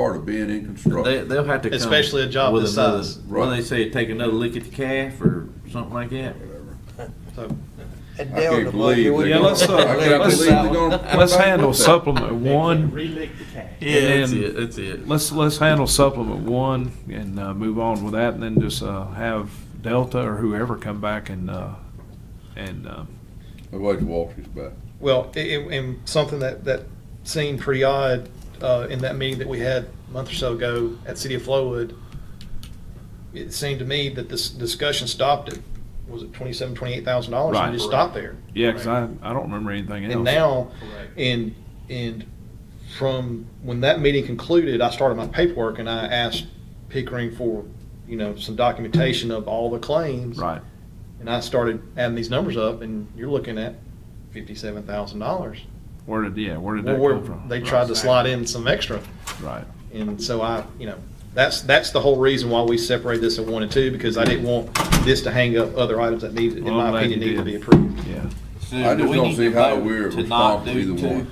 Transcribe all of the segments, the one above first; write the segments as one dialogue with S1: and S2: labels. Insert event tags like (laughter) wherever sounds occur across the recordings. S1: part of being in
S2: They,
S1: construction.
S2: they'll have to come.
S3: Especially a job
S2: with
S3: this
S2: another-
S3: size.
S2: What do they say, take another lick at the calf or something like that?
S1: Whatever.
S3: So,
S4: And
S1: I
S4: down
S1: can't
S4: the
S1: believe
S4: bucket.
S1: they're
S5: Yeah,
S1: gonna-
S5: let's,
S1: (laughs)
S5: uh,
S1: I can't
S5: let's-
S1: believe they're
S4: (laughs)
S1: gonna come
S5: Let's
S1: back
S5: handle
S1: with that.
S5: supplement one,
S6: Relick the cash.
S2: Yeah, that's
S5: And-
S2: it, that's it.
S5: let's, let's handle supplement one and, uh, move on with that and then just, uh, have Delta or whoever come back and, uh, and, um,
S1: I wait till Walter's back.
S3: well, i- i- and something that, that seemed pretty odd uh, in that meeting that we had a month or so ago at City of Flowood, it seemed to me that this discussion stopped at, was it twenty-seven, twenty-eight thousand dollars?
S5: Right.
S3: And just stopped there.
S5: yeah, cause I, I don't remember anything else.
S3: And now,
S6: Correct.
S3: and, and from when that meeting concluded, I started my paperwork and I asked Pickering for, you know, some documentation of all the claims.
S5: Right,
S3: And I started adding these numbers up and you're looking at fifty-seven thousand dollars.
S5: where did, yeah, where did that
S3: Or
S5: come from?
S3: they tried to slide in some extra.
S5: Right,
S3: And so I, you know, that's, that's the whole reason why we separated this at one and two, because I didn't want this to hang up other items that needed, in
S5: Well, I'm
S3: my
S5: glad
S3: opinion,
S5: you
S3: needed to
S5: did.
S3: be approved.
S5: yeah.
S2: So
S1: I
S2: do
S1: just
S2: we
S1: don't
S2: need
S1: see
S2: to
S1: how
S2: vote
S1: we're
S2: to
S1: responsible
S2: not do
S1: either
S2: two?
S1: one.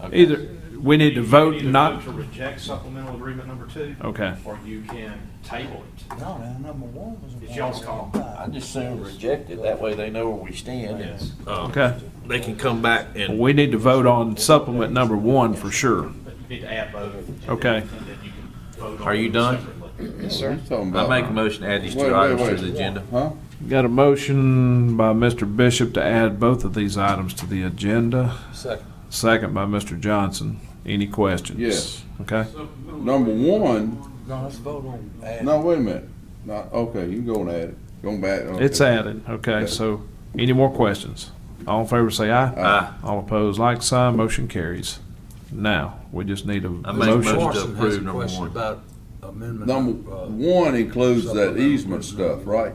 S2: Okay.
S5: Either, we need to vote
S6: You
S5: not,
S6: either vote To reject supplemental agreement number two.
S5: Okay.
S6: Or you can table it.
S4: No, no, number one was.
S6: It's y'all's call.
S2: I just soon reject it, that way they know where we stand and, um,
S5: okay,
S2: they can come back and.
S5: we need to vote on supplement number one for sure.
S6: But you need to add both. and then-
S5: Okay.
S6: And then you can vote on.
S2: Are you
S6: them
S2: done?
S6: separately.
S3: Yes,
S1: What are
S3: sir.
S1: you talking
S2: I
S1: about?
S2: make a motion to add these
S1: Wait,
S2: two
S1: wait,
S2: items
S1: wait.
S2: to the agenda.
S1: Huh?
S5: Got a motion by Mr. Bishop to add both of these items to the agenda,
S2: Second.
S5: second by Mr. Johnson. Any questions?
S1: Yes.
S5: Okay,
S1: Number one,
S4: No, let's vote on. that.
S1: no, wait a minute. Not, okay, you can go and add it. Go back. okay.
S5: it's added, okay, so any more questions? All in favor say aye.
S1: Uh,
S2: Aye.
S5: All opposed, like sign, motion carries. Now, we just need a
S2: I make a motion
S5: motion.
S2: to approve number one.
S4: about amendment.
S1: Number one includes that easement stuff, right?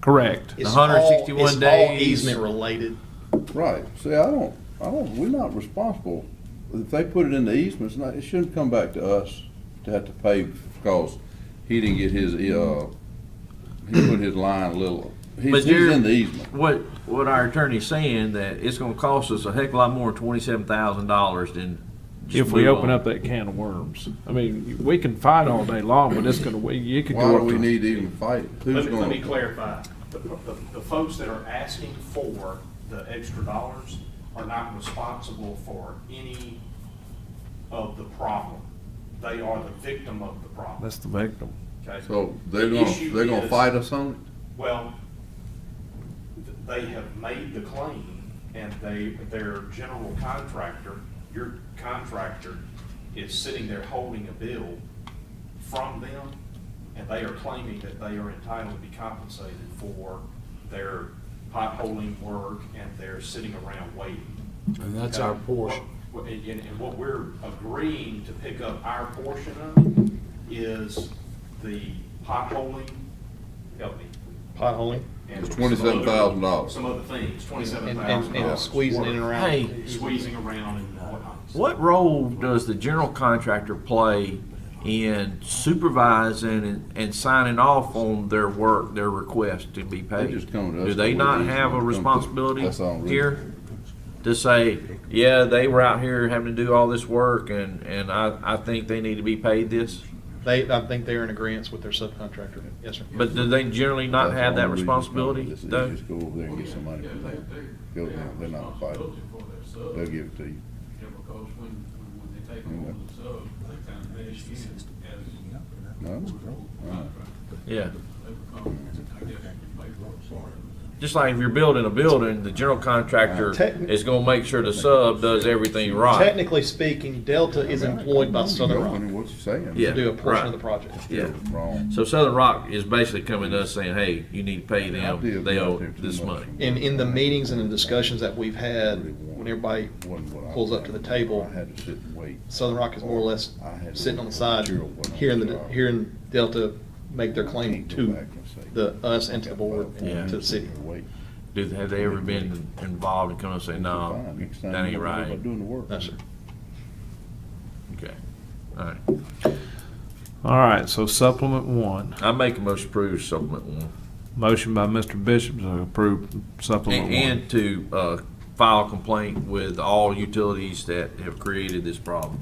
S5: Correct,
S3: It's all-
S2: 161
S3: it's all
S2: days.
S3: Easement related.
S1: Right. See, I don't, I don't, we're not responsible. If they put it in the easement, it's not, it shouldn't come back to us to have to pay because he didn't get his, uh, he put his line a little,
S2: But
S1: he's, he's
S2: you're-
S1: in the easement.
S2: What, what our attorney's saying, that it's gonna cost us a heck of a lot more than twenty-seven thousand dollars than. just
S5: if we
S2: move
S5: open
S2: on.
S5: up that can of worms. I mean, we can fight all day long, but it's gonna, we- you could
S1: Why
S5: go
S1: do
S5: up
S1: we
S5: to.
S1: need to even fight? Who's
S6: Let me, let me
S1: gonna?
S6: clarify. The, the, the folks that are asking for the extra dollars are not responsible for any of the problem. They are the victim of the problem.
S5: That's the victim.
S6: Okay?
S1: So they're
S6: The
S1: gonna,
S6: issue
S1: they're gonna
S6: is-
S1: fight us on it?
S6: Well, th- they have made the claim and they, their general contractor, your contractor is sitting there holding a bill from them and they are claiming that they are entitled to be compensated for their potholing work and they're sitting around waiting.
S4: And that's
S6: Okay?
S4: our portion.
S6: What- And, and- and what we're agreeing to pick up our portion of is the potholing, help me,
S3: Potholing.
S6: and
S1: It's $27,000.
S6: Some other things,
S3: And,
S6: twenty-seven thousand
S3: and, and
S6: dollars.
S3: squeezing in and around.
S2: Hey.
S6: Squeezing around and whatnot.
S2: What role does the general contractor play in supervising and, and signing off on their work, their request to be paid?
S1: just come to us
S2: Do they
S1: with
S2: not
S1: these
S2: have a
S1: when it comes to-
S2: responsibility
S1: That's all, really.
S2: here? To say, yeah, they were out here having to do all this work and, and I, I think they need to be paid this?
S3: They, I think they're in agreement with their subcontractor. Yes, sir.
S2: But do they generally not
S1: That's
S2: have
S1: the
S2: that
S1: only reason it's coming.
S2: responsibility
S1: Just- you
S2: though?
S1: Just go over there and get some money from them. Go there, they're not fighting. They'll give it to you.
S7: Because when, when when they take over the sub, they kind of mesh in as
S1: No? Uh,
S2: Yeah.
S7: they become, I guess, paperwork part of it.
S2: Just like if you're building a building, the general contractor
S3: Techni-
S2: is gonna make sure the sub does everything right.
S3: Technically speaking, Delta is employed by Southern Rock
S1: What you saying?
S2: Yeah.
S3: to do a portion
S2: right.
S3: of the project.
S2: Yeah.
S1: Wrong.
S2: So Southern Rock is basically coming to us saying, hey, you need to pay
S1: I
S2: them,
S1: did
S2: they
S1: go out
S2: owe
S1: there too
S2: this
S1: much.
S2: money.
S3: In, in the meetings and the discussions that we've had, when everybody
S1: Wasn't what I
S3: pulls up to the table,
S1: I had to sit and wait.
S3: Southern Rock is more or less
S1: I had to-
S3: sitting on the side,
S1: Material wasn't
S3: hearing the,
S1: sure.
S3: hearing Delta make their claim
S1: Go
S3: to
S1: back and say,
S3: the, us and to the board
S2: Yeah.
S3: and to the city.
S1: Wait.
S2: Do, have they ever been involved and come and say, no,
S1: Fine. Next time
S2: that
S1: you
S2: ain't
S1: know what
S2: right?
S1: I'm Doing the work.
S3: No, sir.
S2: Okay. All right.
S5: All right, so supplement one.
S2: I make a motion to approve supplement one.
S5: Motion by Mr. Bishop to approve
S2: And,
S5: supplement one.
S2: and to, uh, file a complaint with all utilities that have created this problem.